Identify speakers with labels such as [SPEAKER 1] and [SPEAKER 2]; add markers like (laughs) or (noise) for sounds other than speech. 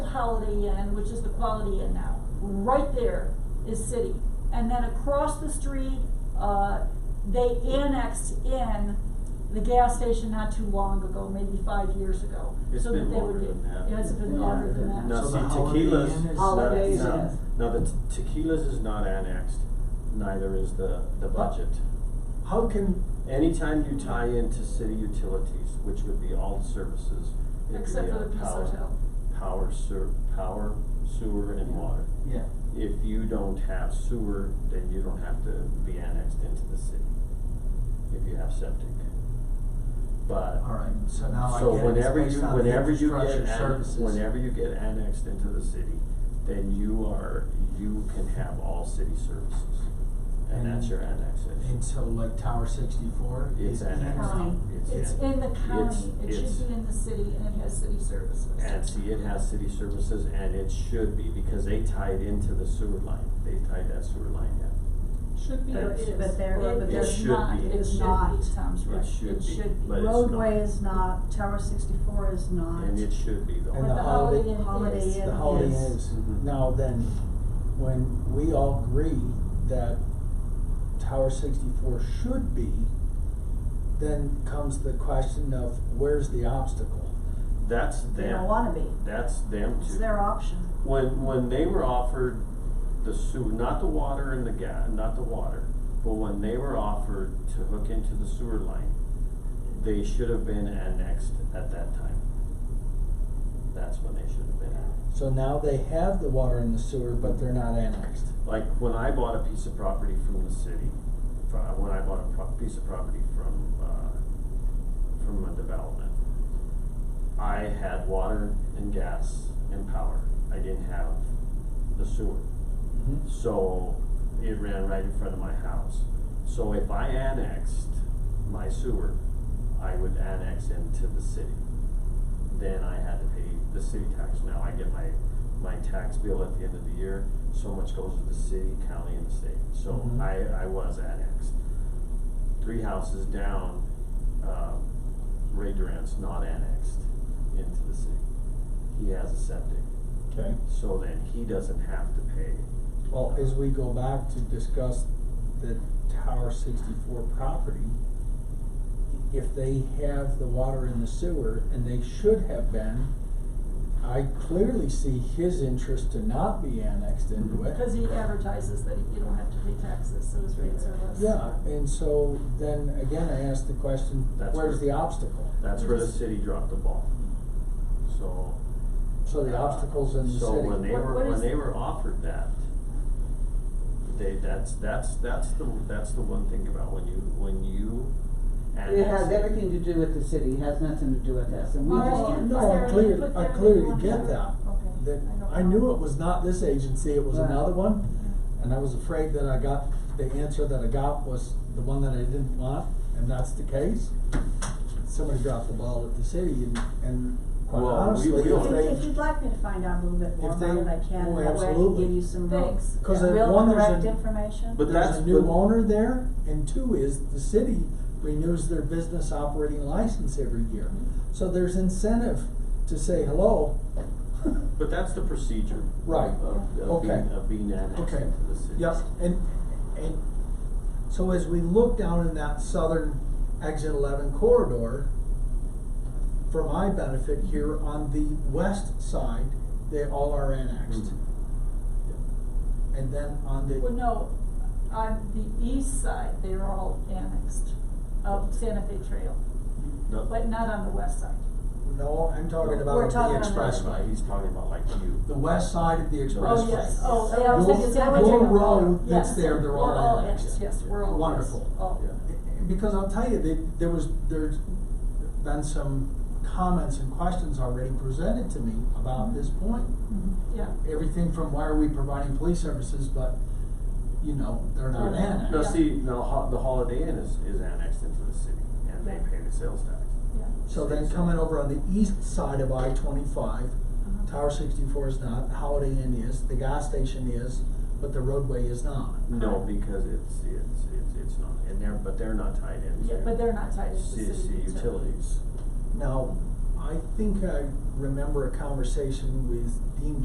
[SPEAKER 1] municipality end, which is the quality end now, right there is city. And then across the street, uh, they annexed in the gas station not too long ago, maybe five years ago.
[SPEAKER 2] It's
[SPEAKER 1] so that
[SPEAKER 2] been
[SPEAKER 1] they would
[SPEAKER 2] longer
[SPEAKER 1] get-
[SPEAKER 2] than that.
[SPEAKER 1] yeah, It's been
[SPEAKER 3] Yeah.
[SPEAKER 1] longer than that.
[SPEAKER 2] Now,
[SPEAKER 3] So
[SPEAKER 2] see,
[SPEAKER 3] the Holiday Inn
[SPEAKER 2] tequilas,
[SPEAKER 3] is-
[SPEAKER 4] Holiday Inn.
[SPEAKER 2] no, no, the te- tequilas is not annexed, neither is the, the budget.
[SPEAKER 3] How can,
[SPEAKER 2] Anytime you tie into city utilities, which would be all services, it'd be
[SPEAKER 1] Except for
[SPEAKER 2] uh,
[SPEAKER 1] the Peace
[SPEAKER 2] power,
[SPEAKER 1] Hotel.
[SPEAKER 2] power ser, power, sewer and water.
[SPEAKER 3] yeah,
[SPEAKER 2] If you don't have sewer, then you don't have to be annexed into the city, if you have septic. But
[SPEAKER 3] alright, so now I
[SPEAKER 2] So
[SPEAKER 3] get it, it's
[SPEAKER 2] whenever you,
[SPEAKER 3] based on the
[SPEAKER 2] whenever you get,
[SPEAKER 3] infrastructure
[SPEAKER 2] an-
[SPEAKER 3] services.
[SPEAKER 2] whenever you get annexed into the city, then you are, you can have all city services. And that's your
[SPEAKER 3] And
[SPEAKER 2] annexation.
[SPEAKER 3] so like Tower sixty-four
[SPEAKER 2] It's
[SPEAKER 3] is
[SPEAKER 2] annexed.
[SPEAKER 3] annexed.
[SPEAKER 1] County. Um, It's in the county, it
[SPEAKER 2] it's-
[SPEAKER 1] should be in the city, and it has city services.
[SPEAKER 2] And see, it has city services and it should be, because they tied into the sewer line, they tied that sewer line in.
[SPEAKER 1] Should be, or
[SPEAKER 2] That's-
[SPEAKER 1] is.
[SPEAKER 4] But there-
[SPEAKER 1] It-
[SPEAKER 4] but
[SPEAKER 1] it
[SPEAKER 4] there's
[SPEAKER 1] is
[SPEAKER 2] should
[SPEAKER 1] not,
[SPEAKER 2] be.
[SPEAKER 1] it
[SPEAKER 4] It's
[SPEAKER 1] should
[SPEAKER 4] not. um,
[SPEAKER 1] be, Tom's
[SPEAKER 2] It
[SPEAKER 1] right,
[SPEAKER 2] should
[SPEAKER 1] it
[SPEAKER 2] be,
[SPEAKER 1] should be.
[SPEAKER 2] but- it's not.
[SPEAKER 4] Roadway is not, Tower sixty-four is not.
[SPEAKER 2] And it should be though.
[SPEAKER 3] And
[SPEAKER 1] But
[SPEAKER 3] the
[SPEAKER 1] the
[SPEAKER 3] Holiday-
[SPEAKER 1] Holiday Inn is.
[SPEAKER 4] Holiday Inn.
[SPEAKER 3] The Holiday Inn
[SPEAKER 4] is-
[SPEAKER 3] is,
[SPEAKER 2] Mhm.
[SPEAKER 3] now then, when we all agree that Tower sixty-four should be, then comes the question of where's the obstacle?
[SPEAKER 2] That's
[SPEAKER 4] They don't
[SPEAKER 2] them,
[SPEAKER 4] wanna be,
[SPEAKER 2] that's them too.
[SPEAKER 4] it's their option.
[SPEAKER 2] When, when they were offered the sewer, not the water and the ga, not the water, but when they were offered to hook into the sewer line, they should have been annexed at that time. That's when they should have been annexed.
[SPEAKER 3] So now they have the water and the sewer, but they're not annexed.
[SPEAKER 2] Like, when I bought a piece of property from the city, fro- when I bought a pro- piece of property from, uh, from a development, I had water and gas and power. I didn't have the sewer.
[SPEAKER 3] Mm-hmm.
[SPEAKER 2] So it ran right in front of my house. So if I annexed my sewer, I would annex into the city. Then I had to pay the city tax. Now I get my, my tax bill at the end of the year, so much goes to the city, county, and the state. So
[SPEAKER 3] Mhm.
[SPEAKER 2] I, I was annexed. Three houses down, um, Ray Durant's not annexed into the city. He has a septic,
[SPEAKER 3] Okay.
[SPEAKER 2] so then he doesn't have to pay
[SPEAKER 3] Well, as we go back to discuss the Tower sixty-four property, if they have the water in the sewer, and they should have been, I clearly see his interest to not be annexed into it.
[SPEAKER 1] Because he advertises that you don't have to pay taxes, so his rates are less.
[SPEAKER 3] Yeah, and so then again, I ask the question,
[SPEAKER 2] That's
[SPEAKER 3] where's
[SPEAKER 2] where-
[SPEAKER 3] the obstacle?
[SPEAKER 2] That's where the city dropped the ball. So.
[SPEAKER 3] So the
[SPEAKER 2] uh,
[SPEAKER 3] obstacle's in the city.
[SPEAKER 2] So when they
[SPEAKER 1] What-
[SPEAKER 2] were,
[SPEAKER 1] what
[SPEAKER 2] when
[SPEAKER 1] is-
[SPEAKER 2] they were offered that, they, that's, that's, that's the, that's the one thing about when you, when you.
[SPEAKER 5] It has
[SPEAKER 2] annex-
[SPEAKER 5] everything to do with the city, it has nothing to do with us, and we
[SPEAKER 1] Well,
[SPEAKER 5] just
[SPEAKER 1] I
[SPEAKER 5] can't.
[SPEAKER 1] understand.
[SPEAKER 3] No,
[SPEAKER 1] Was Oh, there
[SPEAKER 3] I
[SPEAKER 1] an
[SPEAKER 3] clearly,
[SPEAKER 1] input
[SPEAKER 3] I
[SPEAKER 1] there that you
[SPEAKER 3] clearly
[SPEAKER 1] wanted
[SPEAKER 3] get
[SPEAKER 1] to-
[SPEAKER 3] that,
[SPEAKER 1] Okay,
[SPEAKER 3] that,
[SPEAKER 1] I know.
[SPEAKER 3] I knew it was not this agency, it was
[SPEAKER 5] Right.
[SPEAKER 3] another one, and I was afraid that I got, the answer that I got was the one that I didn't want, and that's the case. Somebody dropped the ball at the city, and, and quite
[SPEAKER 2] Well, we-
[SPEAKER 3] honestly,
[SPEAKER 2] we
[SPEAKER 3] if
[SPEAKER 2] don't-
[SPEAKER 3] they,
[SPEAKER 4] If, if you'd like me to find out a little bit more
[SPEAKER 3] If they-
[SPEAKER 4] about it, I can,
[SPEAKER 3] oh,
[SPEAKER 4] that way I can
[SPEAKER 3] absolutely.
[SPEAKER 4] give you some real,
[SPEAKER 1] Thanks.
[SPEAKER 3] 'Cause
[SPEAKER 1] Yeah.
[SPEAKER 3] there-
[SPEAKER 4] real
[SPEAKER 3] one, there's
[SPEAKER 4] correct
[SPEAKER 3] a-
[SPEAKER 4] information.
[SPEAKER 2] But
[SPEAKER 3] there's
[SPEAKER 2] that's-
[SPEAKER 3] a new
[SPEAKER 2] but-
[SPEAKER 3] owner there, and two is, the city renews their business operating license every year. So there's incentive to say, hello, (laughs)
[SPEAKER 2] But that's the procedure.
[SPEAKER 3] Right.
[SPEAKER 2] Of, of being,
[SPEAKER 3] Okay.
[SPEAKER 2] of being annexed
[SPEAKER 3] Okay.
[SPEAKER 2] into the city. Mm-hmm.
[SPEAKER 3] Yep, and, and, so as we look down in that southern exit eleven corridor, for my benefit here, on the west side, they all are annexed.
[SPEAKER 2] Mhm.
[SPEAKER 3] And then on the,
[SPEAKER 1] Well, no, on the east side, they were all annexed of Santa Fe Trail,
[SPEAKER 2] No,
[SPEAKER 1] but not on the west side.
[SPEAKER 3] no, I'm talking
[SPEAKER 2] No.
[SPEAKER 3] about
[SPEAKER 4] We're
[SPEAKER 3] the
[SPEAKER 4] talking on the-
[SPEAKER 2] Right,
[SPEAKER 3] expressway.
[SPEAKER 2] he's talking about like you.
[SPEAKER 3] The west side of the expressway.
[SPEAKER 1] Oh, yes, oh, yeah, I was thinking
[SPEAKER 3] Your-
[SPEAKER 1] Santa Fe
[SPEAKER 3] your
[SPEAKER 1] Trail.
[SPEAKER 3] road that's
[SPEAKER 1] Yes.
[SPEAKER 3] there, they're all
[SPEAKER 1] We're all
[SPEAKER 3] annexed.
[SPEAKER 1] annexed, yes, we're all annexed.
[SPEAKER 3] Wonderful.
[SPEAKER 1] Oh.
[SPEAKER 2] Yeah.
[SPEAKER 3] Because I'll tell you, they, there was, there's been some comments and questions already presented to me about this point.
[SPEAKER 4] Mm-hmm.
[SPEAKER 1] Mhm, Yeah.
[SPEAKER 3] Everything from why are we providing police services, but, you know, they're
[SPEAKER 2] Oh,
[SPEAKER 3] not
[SPEAKER 1] Yeah.
[SPEAKER 3] annexed.
[SPEAKER 2] No,
[SPEAKER 1] Yeah.
[SPEAKER 2] see, no, ho- the Holiday Inn is, is annexed into the city and they pay the sales tax.
[SPEAKER 1] Yeah.
[SPEAKER 3] So then coming over on the east side of I twenty-five,
[SPEAKER 1] Uh-huh.
[SPEAKER 3] Tower sixty-four is not, Holiday Inn is, the gas station is, but the roadway is not.
[SPEAKER 2] No, because it's, it's, it's, it's not, and they're, but they're not tied into.
[SPEAKER 1] Yeah, but they're not tied into
[SPEAKER 2] ci-
[SPEAKER 1] city
[SPEAKER 2] ci-
[SPEAKER 1] utilities.
[SPEAKER 2] utilities.
[SPEAKER 3] Now, I think I remember a conversation with Dean